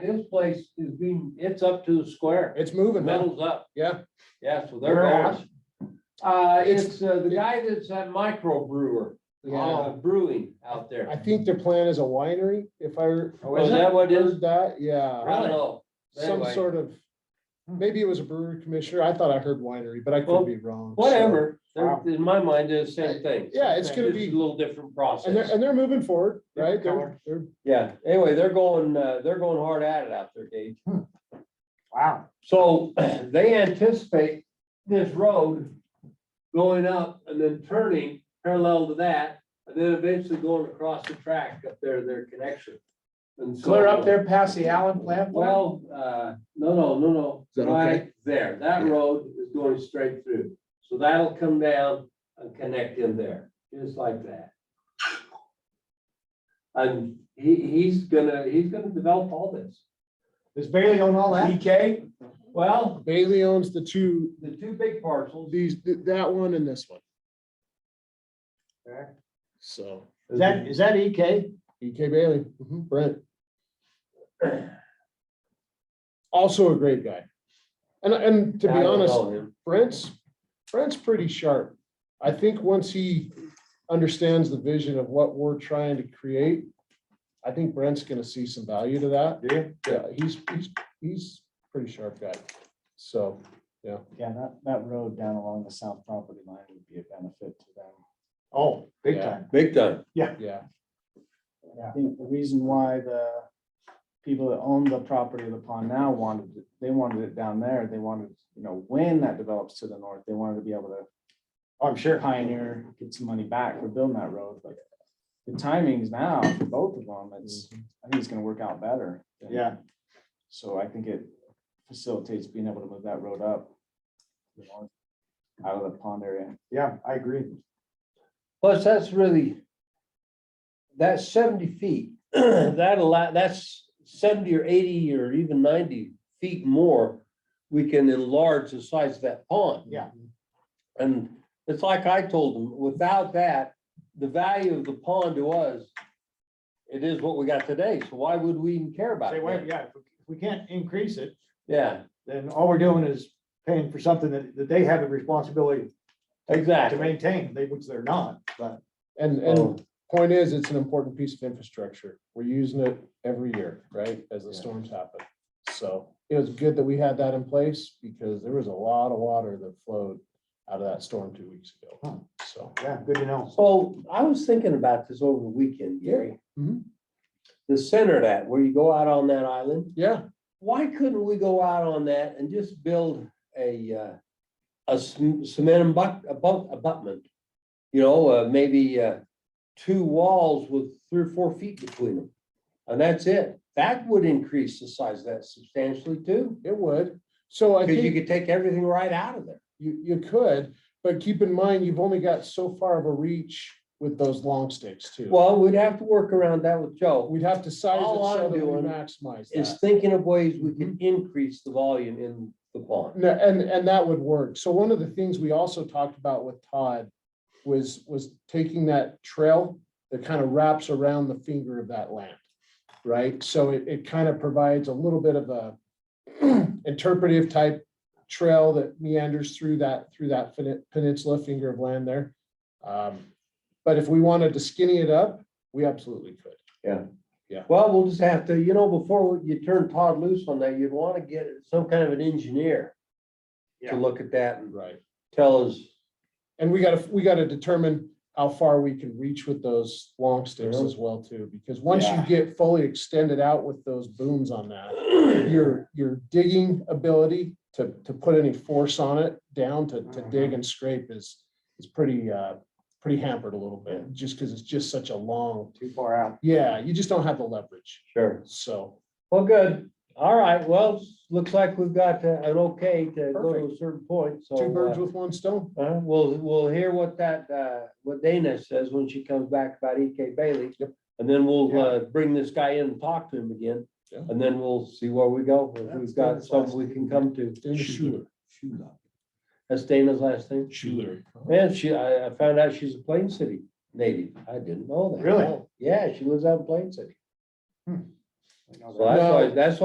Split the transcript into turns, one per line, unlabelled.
His place is being, it's up to the square.
It's moving now,
Metal's up.
yeah,
Yeah, so they're
Where at?
going. Uh,
It's-
it's uh, the guy that's that micro brewer, uh,
yeah.
brewing out
Oh. I
there.
think their plan is a winery, if I.
Oh, is that what it is?
heard That, yeah.
I don't know.
some
Anyway. Hmm.
sort of, maybe it was a brewery commissioner. I thought I heard winery, but I
Well,
could be wrong. so-
Whatever, They're-
Wow.
in my mind, they're the same thing.
Yeah, it's gonna
Just
be-
A little different
And they're,
process.
and they're moving forward, right? They're,
Different
they're,
Yeah, anyway, they're going, uh, they're going hard at it out there, Gage.
Wow.
So they anticipate this road going up and then turning parallel to that, and then eventually going across the track up there, their connection. And so-
Clear up there past the Allen plant.
Well, uh, no, no, no, no.
that okay?
Right there, that road is going straight through, so that'll come down and connect in there, just like that. And he, he's gonna, he's gonna develop all this.
Does Bailey own all
E
that?
DK, well,
Bailey owns the two,
the two big parcels.
these, that one and this one, so.
Is that, is that E EK?
EK Bailey, mhm, Brent. Also a great guy. And, and to be
I don't
honest,
know him.
Brent's, Brent's pretty sharp. I think once he understands the vision of what we're trying to create, I think Brent's gonna see some value to that.
Do you?
Yeah, he's, he's, he's a pretty sharp guy. So,
Yeah, that, that road down along the south property line would be a benefit to them.
Oh, big
Yeah.
time.
Big time.
yeah,
I think the reason why the people that own the property of the pond now wanted, it- they wanted it down there, they wanted, you know, when that develops to the north, they wanted to be able to
Oh, I'm sure.
pioneer, get some money back for building that road, but the timings now for both of them, it's, I think it's gonna work out better.
Mm-hmm. Yeah.
So I think it facilitates being able to move that road up. you know, Out of the pond area.
Yeah, I agree.
Plus, that's really, that's seventy feet, that allow, that's seventy or eighty or even ninety feet more. We can enlarge the size of that pond.
Yeah.
And it's like I told them, without that, the value of the pond to us, it is what we got today, so why would we even care about
Say,
it?
wait,
then?
yeah, if we- if we can't increase it,
Yeah,
then all we're doing is paying for something that, that they have the responsibility to
exactly.
maintain, they, which they're not, but.
and,
Oh.
and point is, it's an important piece of infrastructure. We're using it every year, right, as the storms happen. So it was good that we had that in place because there was a lot of water that flowed out of that storm two weeks
Huh.
ago, so.
Yeah, good to know.
So I was thinking about this over the weekend, Gary.
Mhm.
The center of that, where you go out on that island,
Yeah,
why couldn't we go out on that and just build a, uh, a c- cement abut- abut- abutment? You know, uh, maybe, uh, two walls with three or four feet between them. And that's it. That would increase the size of that substantially too,
It would. So I
because you could
think
take everything right out of there.
you, you could, but keep in mind, you've only got so far of a reach with those long sticks too.
Well, we'd have to work around that with Joe.
We'd have to size it
all
so
I'm
that we
doing
maximize
Is
that.
thinking of ways we can
Mm-hmm.
increase the volume in the pond.
No, and, and that would work. So one of the things we also talked about with Todd was, was taking that trail that kind of wraps around the finger of that land, right? So it, it kind of provides a little bit of a interpretive type trail that meanders through that, through that pen- peninsula, finger of land there. Um, But if we wanted to skinny it up, we absolutely could.
Well, we'll just have to, you know, before you turn Todd loose on that, you'd want to get some kind of an engineer
Yeah.
to look at that and
Right.
tell us,
And we gotta, we gotta determine how far we can reach with those long sticks
Yeah.
as well too, because once you
Yeah.
get fully extended out with those booms on that, your, your digging ability to, to put any force on it down to, to dig and scrape is, is pretty, uh, pretty hampered a little bit, just because it's just such a long,
Too far out.
yeah, you just don't have the leverage,
sure.
so.
Well, good. All right. Well, s- looks like we've got uh, an okay to go to a
Perfect.
certain point, so.
Two birds
uh,
with one stone,
uh, We'll, we'll hear what that, uh, what Dana says when she comes back about EK Bailey.
Yep.
And then we'll,
Yeah.
uh, bring this guy in and talk to him again.
Yeah.
And then we'll see where we go. If
That's
we've got
Dana's
something
last
we can come to.
Dana Schuler.
That's Dana's last name?
Schuler.
Man, she, I, I found out she's a Plain City native. I didn't know that.
Really?
Yeah, she lives out in Plain City.
I know that.
So that's why, that's